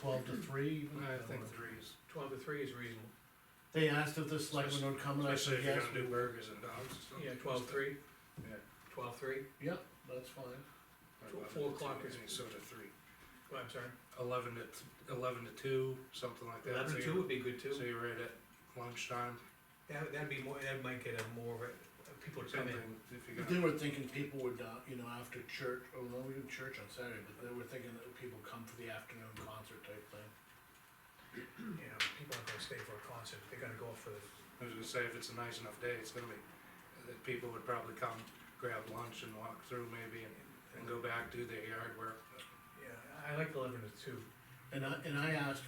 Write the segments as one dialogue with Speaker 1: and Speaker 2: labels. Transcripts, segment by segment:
Speaker 1: twelve to three even?
Speaker 2: I think three is, twelve to three is reasonable,
Speaker 1: They asked if the selectmen would come and I
Speaker 3: Especially
Speaker 1: said,
Speaker 3: if you're
Speaker 1: yes,
Speaker 3: gonna
Speaker 1: we
Speaker 3: do
Speaker 1: will.
Speaker 3: burgers and dogs and stuff.
Speaker 2: yeah, twelve three,
Speaker 3: Yeah.
Speaker 2: twelve three,
Speaker 1: Yep, that's fine.
Speaker 3: I'd love
Speaker 2: Four
Speaker 3: it to
Speaker 2: o'clock
Speaker 3: be
Speaker 2: is-
Speaker 3: Sort of three,
Speaker 2: oh, I'm sorry,
Speaker 3: eleven to, t- eleven to two, something like that.
Speaker 2: eleven
Speaker 3: So
Speaker 2: to two
Speaker 3: you're-
Speaker 2: would be good
Speaker 3: So
Speaker 2: too.
Speaker 3: you're right at lunchtime,
Speaker 2: That, that'd be more, that might get a more, of a- people to come in,
Speaker 3: something, if you're
Speaker 1: But They
Speaker 3: gonna,
Speaker 1: were thinking people would, uh, you know, after church, oh, no, we do church on Saturday, but they were thinking that people come for the afternoon concert type thing.
Speaker 2: you know, people aren't gonna stay for a concert, they're gonna go for the,
Speaker 3: I was gonna say, if it's a nice enough day, it's gonna be, that people would probably come, grab lunch and walk through maybe and, and go back, do their yard work.
Speaker 2: yeah, I like eleven to two.
Speaker 1: And I, and I asked,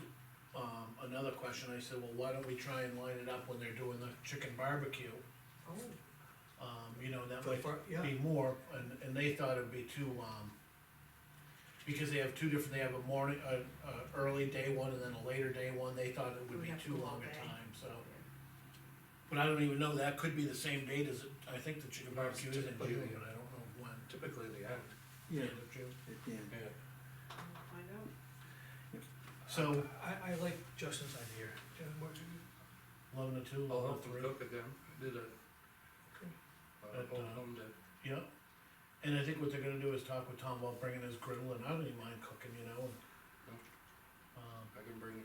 Speaker 1: um, another question, I said, well, why don't we try and line it up when they're doing the chicken barbecue?
Speaker 2: Oh.
Speaker 1: Um, you know, that
Speaker 2: For the
Speaker 1: might
Speaker 2: fir- yeah,
Speaker 1: be more, and, and they thought it'd be too, um, because they have two different, they have a morning, a, a early day one and then a later day one, they thought it would
Speaker 4: We
Speaker 1: be
Speaker 4: have to
Speaker 1: too
Speaker 4: go all
Speaker 1: long a
Speaker 4: day.
Speaker 1: time, so. But I don't even know, that could be the same date as, it- I think the chicken barbecue is in June, but I
Speaker 3: Typically,
Speaker 1: don't
Speaker 3: yeah.
Speaker 1: know when.
Speaker 3: Typically the end.
Speaker 5: Yeah,
Speaker 1: End of June.
Speaker 3: Uh,
Speaker 5: at the end.
Speaker 3: Yeah.
Speaker 4: We'll Find out.
Speaker 1: So,
Speaker 2: I, I like Justin's idea, Justin, what you,
Speaker 1: eleven to two,
Speaker 3: I'll
Speaker 1: eleven
Speaker 3: help
Speaker 1: to
Speaker 3: them
Speaker 1: three,
Speaker 3: cook again, I did a, a
Speaker 1: At,
Speaker 3: whole
Speaker 1: uh,
Speaker 3: home day.
Speaker 1: yeah. And I think what they're gonna do is talk with Tom about bringing his griddle, and I don't even mind cooking, you know, and. Um,
Speaker 3: I can bring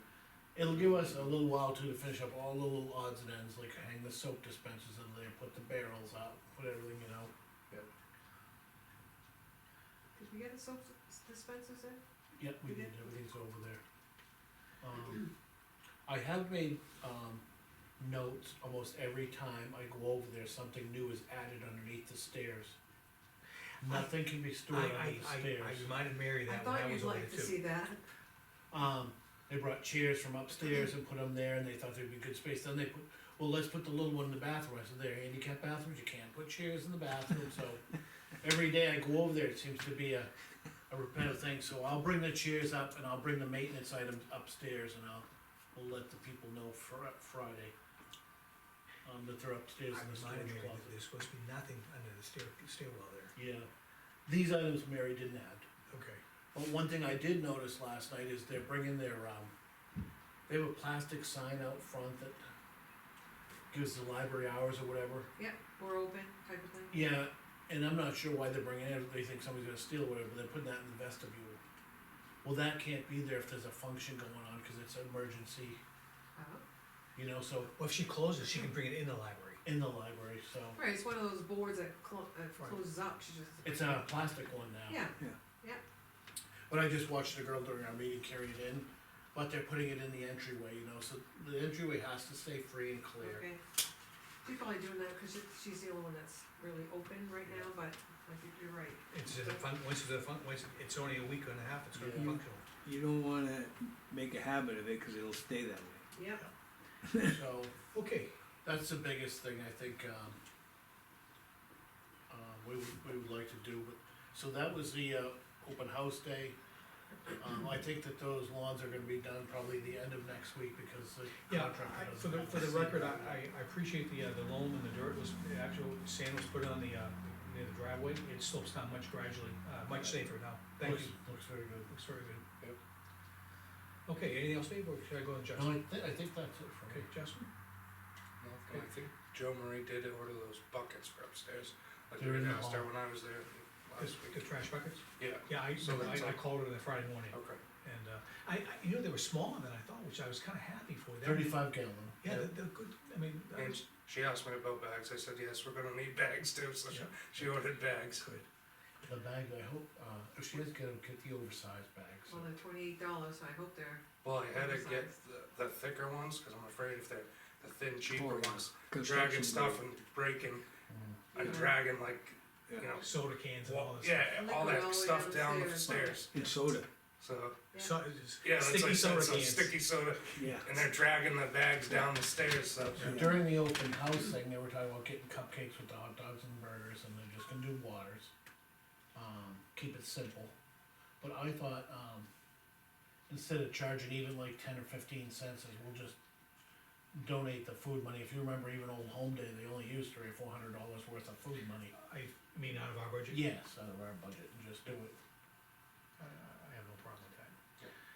Speaker 1: It'll give us a little while too to finish up all the little odds and ends, like hang the soap dispensers in there, put the barrels out, put everything, you know.
Speaker 4: Did we get the soap s- dispensers in?
Speaker 1: Yep, we did, everything's over there. Um, I have made, um, notes almost every time I go over there, something new is added underneath the stairs. Nothing can be
Speaker 2: I,
Speaker 1: stored
Speaker 2: I,
Speaker 1: under the
Speaker 2: I, I
Speaker 1: stairs.
Speaker 2: reminded Mary
Speaker 4: I
Speaker 2: that when I
Speaker 4: thought
Speaker 2: was
Speaker 4: you'd
Speaker 2: over there
Speaker 4: like to
Speaker 2: too.
Speaker 4: see that.
Speaker 1: Um, they brought chairs from upstairs and put them there, and they thought there'd be good space, then they put, well, let's put the little one in the bathroom, I said, there, are handicap bathrooms, you can't put chairs in the bathroom, so. Every day I go over there, it seems to be a, a repetitive thing, so I'll bring the chairs up and I'll bring the maintenance items upstairs and I'll, we'll let the people know Fri- Friday. Um, that they're upstairs
Speaker 2: I
Speaker 1: in the
Speaker 2: reminded
Speaker 1: storage
Speaker 2: Mary that
Speaker 1: closet,
Speaker 2: there's supposed to be nothing under the stair, stairwell there,
Speaker 1: yeah, these items Mary didn't add.
Speaker 2: okay.
Speaker 1: But one thing I did notice last night is they're bringing their, um, they have a plastic sign out front that gives the library hours or whatever.
Speaker 4: Yep, we're open type of thing.
Speaker 1: Yeah, and I'm not sure why they're bringing it, if they think somebody's gonna steal it, or whatever, but they're putting that in the vestibule. Well, that can't be there if there's a function going on, cause it's an emergency,
Speaker 4: Uh-huh.
Speaker 1: you know, so,
Speaker 2: Well, if she closes, she can bring it in the library.
Speaker 1: in the library, so.
Speaker 4: Right, it's one of those boards that clo- that
Speaker 2: Right.
Speaker 4: closes up, she just.
Speaker 1: It's a plastic one now.
Speaker 4: Yeah,
Speaker 1: But I just watched a girl during our meeting carry it in, but they're putting it in the entryway, you know, so the entryway has to stay free and clear.
Speaker 4: okay. She's probably doing that, cause she- she's the only one that's really open right now, but I think you're right.
Speaker 2: It's a fun, once it's a fun, once it's only a week and a half, it's gonna be
Speaker 1: Yeah.
Speaker 2: functional.
Speaker 5: You don't wanna make a habit of it, cause it'll stay that way.
Speaker 4: Yep,
Speaker 1: So,
Speaker 2: Okay,
Speaker 1: that's the biggest thing I think, um, uh, we would, we would like to do, but, so that was the, uh, open house day. Um, I think that those lawns are gonna be done probably the end of next week because the
Speaker 2: yeah,
Speaker 1: contractor
Speaker 2: I-
Speaker 1: doesn't
Speaker 2: for the,
Speaker 1: have
Speaker 2: for the
Speaker 1: to see
Speaker 2: record, I,
Speaker 1: it.
Speaker 2: I- I appreciate the, uh, the loam and the dirt was, the actual sand was put on the, uh, near the driveway, it slopes down much gradually, uh, much safer now, thank
Speaker 1: Looks,
Speaker 2: you,
Speaker 1: looks very good.
Speaker 2: looks very good. Yep. Okay, anything else, Dave, or should I go on
Speaker 1: No, I
Speaker 2: Justin?
Speaker 1: thi- I think that's it for
Speaker 2: Okay,
Speaker 1: me.
Speaker 2: Justin?
Speaker 3: No, I think Joe Marie did order those buckets for upstairs, like
Speaker 1: They're
Speaker 3: they
Speaker 1: in
Speaker 3: did
Speaker 1: the
Speaker 3: downstairs when I was there last
Speaker 2: The-
Speaker 3: week.
Speaker 2: The trash buckets?
Speaker 3: Uh, Yeah,
Speaker 2: Yeah, I,
Speaker 3: So that's all.
Speaker 2: I, I called her the Friday morning,
Speaker 3: okay.
Speaker 2: and, uh, I, I, you know, they were smaller than I thought, which I was kinda happy for, that,
Speaker 1: Thirty-five gallon.
Speaker 2: yeah, they're, they're good, I mean, that
Speaker 3: And
Speaker 2: was
Speaker 3: she asked me about bags, I said, yes, we're gonna need bags too, so she-
Speaker 2: Yeah.
Speaker 3: she ordered bags.
Speaker 2: good.
Speaker 1: The bag, I hope, uh, if she does get them, get the oversized bags.
Speaker 4: well, they're twenty-eight dollars, so I hope they're,
Speaker 3: Well, I had to
Speaker 4: Oversized.
Speaker 3: get the, the thicker ones, cause I'm afraid if they're the thin cheaper
Speaker 5: Oh, yeah.
Speaker 3: ones, dragging
Speaker 5: Construction
Speaker 3: stuff
Speaker 5: grade.
Speaker 3: and breaking, and
Speaker 4: Yeah.
Speaker 3: dragging like, you
Speaker 5: Yeah.
Speaker 3: know,
Speaker 2: soda cans and all
Speaker 3: well,
Speaker 2: this stuff.
Speaker 3: yeah, all
Speaker 4: Liquid all
Speaker 3: that
Speaker 4: the way
Speaker 3: stuff down the
Speaker 4: downstairs.
Speaker 3: stairs,
Speaker 5: And soda,
Speaker 3: so,
Speaker 2: So,
Speaker 3: yeah, that's
Speaker 2: it's
Speaker 3: like,
Speaker 2: sticky
Speaker 3: I
Speaker 2: soda
Speaker 3: said, so
Speaker 2: cans.
Speaker 3: sticky soda,
Speaker 5: yeah.
Speaker 3: and they're dragging the bags down the stairs, so.
Speaker 5: Yeah.
Speaker 1: During the open house thing, they were talking about getting cupcakes with the hot dogs and burgers, and they're just gonna do waters. Um, keep it simple, but I thought, um, instead of charging even like ten or fifteen cents, is we'll just donate the food money, if you remember even Old Home Day, they only used three or four hundred dollars worth of food money.
Speaker 2: I mean, out of our budget? Uh,
Speaker 1: Yes, out of our budget, and just do it,